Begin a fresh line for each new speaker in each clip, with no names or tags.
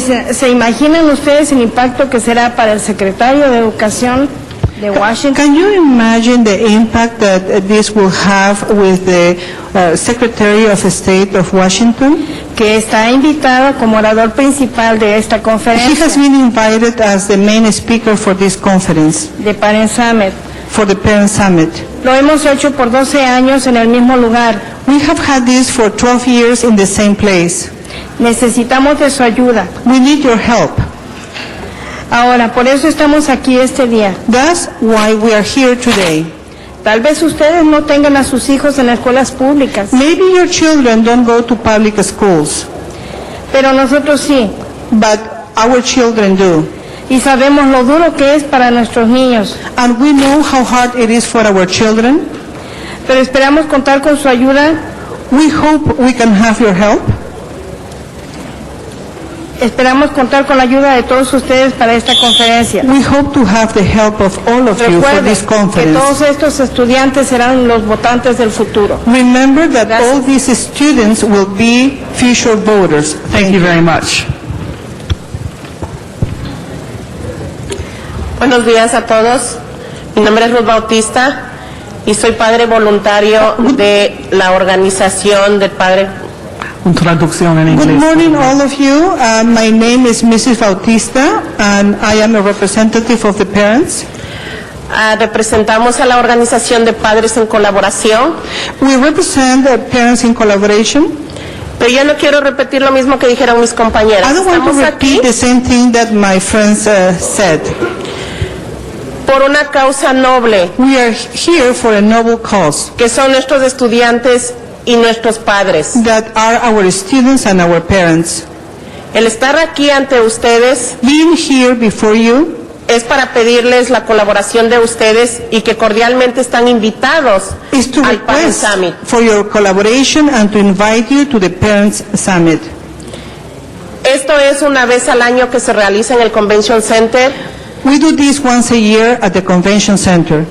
se, se imaginan ustedes el impacto que será para el secretario de Educación de Washington?
Can you imagine the impact that uh, this will have with the uh, Secretary of State of Washington?
que está invitado como orador principal de esta
He has
conferencia
been invited as the main speaker for this conference,
de Parent Summit.
for the Parent Summit.
Lo hemos hecho por 12 años en el mismo lugar.
We have had this for 12 years in the same place.
Necesitamos de su ayuda.
We need your help.
Ahora, por eso estamos aquí este día.
That's why we are here today.
Tal vez ustedes no tengan a sus hijos en las escuelas públicas,
Maybe your children don't go to public schools,
pero nosotros sí.
but our children do.
Y sabemos lo duro que es para nuestros niños.
And we know how hard it is for our children.
Pero esperamos contar con su ayuda,
We hope we can have your help.
esperamos contar con la ayuda de todos ustedes para esta conferencia.
We hope to have the help of all of you for
Recuerden
this
que todos
conference.
estos estudiantes serán los votantes del futuro.
Remember that
Gracias.
all these students will be future voters.
Thank you very much.
Buenos días a todos. Mi nombre es Ruth Bautista y soy padre voluntario de la organización del padre.
Un traducción en inglés.
Good morning, all of you. Uh, My name is Mrs. Bautista, and I am a representative of the parents.
Ah, representamos a la organización de padres en colaboración,
We represent the parents in collaboration.
pero yo no quiero repetir lo mismo que dijeron mis compañeras.
I don't want
Estamos
to
aquí
repeat the same thing that my friends uh, said.
por una causa noble,
We are here for a noble cause
que son nuestros estudiantes y nuestros padres.
that are our students and our parents.
El estar aquí ante ustedes
Being here before you
es para pedirles la colaboración de ustedes y que cordialmente están invitados
is to
al Padre
request
Summit.
for your collaboration and to invite you to the Parents Summit.
Esto es una vez al año que se realiza en el Convention Center
We do this once a year at the Convention Center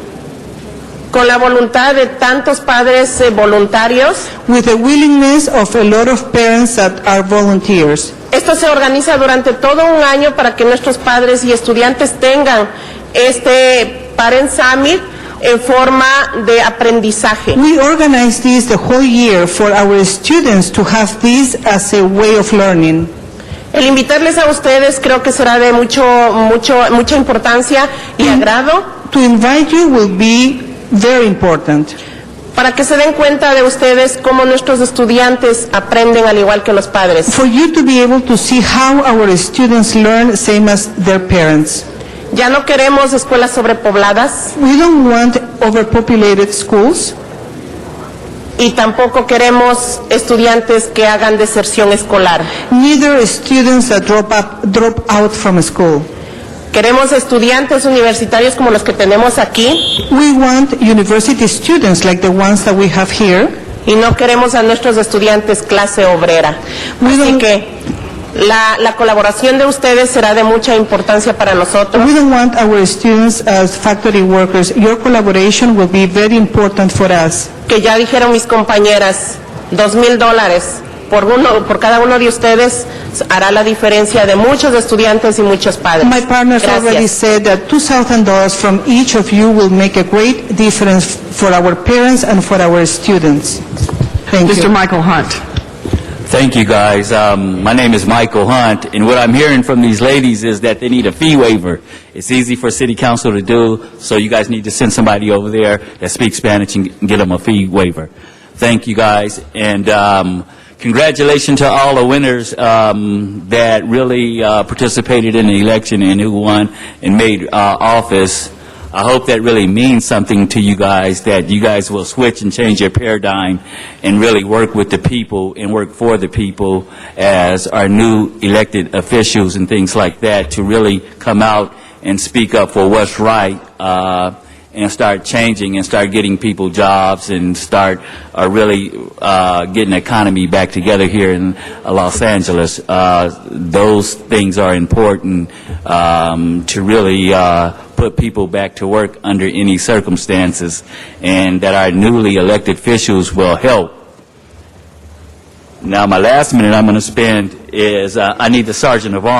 con la voluntad de tantos padres eh, voluntarios.
with the willingness of a lot of parents that are volunteers.
Esto se organiza durante todo un año para que nuestros padres y estudiantes tengan este Parent Summit en forma de aprendizaje.
We organize this the whole year for our students to have this as a way of learning.
El invitarles a ustedes creo que será de mucho, mucho, mucha importancia y agrado
To invite you will be very important
para que se den cuenta de ustedes cómo nuestros estudiantes aprenden al igual que los padres.
for you to be able to see how our students learn same as their parents.
Ya no queremos escuelas sobrepobladas.
We don't want overpopulated schools.
y tampoco queremos estudiantes que hagan deserción escolar.
Neither students that drop, up, drop out from school.
Queremos estudiantes universitarios como los que tenemos aquí
We want university students like the ones that we have here.
y no queremos a nuestros estudiantes clase obrera.
We
Así
don't-
que la, la colaboración de ustedes será de mucha importancia para nosotros.
We don't want our students as factory workers. Your collaboration will be very important for us.
Que ya dijeron mis compañeras, dos mil dólares por, uno, por cada uno de ustedes hará la diferencia de muchos estudiantes y muchos padres.
My partners
Gracias.
already said that $2,000 from each of you will make a great difference for our parents and for our students. Thank you.
Mr. Michael Hunt.
Thank you, guys. Um, my name is Michael Hunt, and what I'm hearing from these ladies is that they need a fee waiver. It's easy for city council to do, so you guys need to send somebody over there that speaks Spanish and get them a fee waiver. Thank you, guys, and um, congratulations to all the winners um, that really uh, participated in the election and who won and made uh, office. I hope that really means something to you guys, that you guys will switch and change your paradigm and really work with the people and work for the people as our new elected officials and things like that to really come out and speak up for what's right uh, and start changing and start getting people jobs and start uh, really uh, getting the economy back together here in uh, Los Angeles. Uh, Those things are important um, to really uh, put people back to work under any circumstances, and that our newly elected officials will help. Now, my last minute I'm going to spend is, uh, I need the Sergeant of Arms